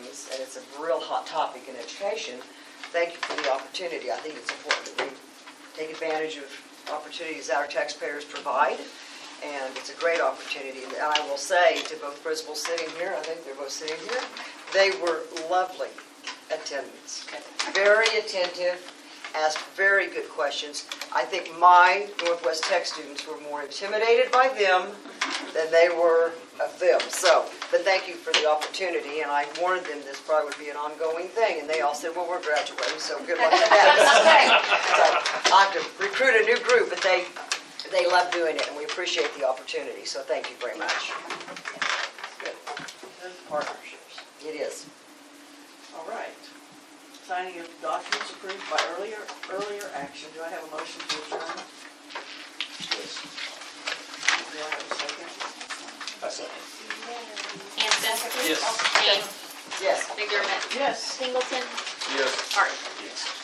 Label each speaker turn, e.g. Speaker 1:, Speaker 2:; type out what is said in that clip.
Speaker 1: is, and it's a real hot topic in education. Thank you for the opportunity. I think it's important that we take advantage of opportunities that our taxpayers provide, and it's a great opportunity. And I will say to both principals sitting here, I think they're both sitting here, they were lovely attendants. Very attentive, asked very good questions. I think my Northwest Tech students were more intimidated by them than they were of them. So, but thank you for the opportunity, and I warned them this probably would be an ongoing thing, and they all said, well, we're graduating, so good luck with that. So, I have to recruit a new group, but they, they love doing it, and we appreciate the opportunity, so thank you very much.
Speaker 2: Those partnerships.
Speaker 1: It is.
Speaker 2: All right. Signing of documents approved by earlier, earlier action. Do I have a motion to adjourn? Do I have a second?
Speaker 3: I second.
Speaker 4: Hanson.
Speaker 3: Yes.
Speaker 4: Kane.
Speaker 1: Yes.
Speaker 4: McDermott.
Speaker 2: Yes.
Speaker 4: Singleton.
Speaker 3: Yes.
Speaker 4: Hart.
Speaker 3: Yes.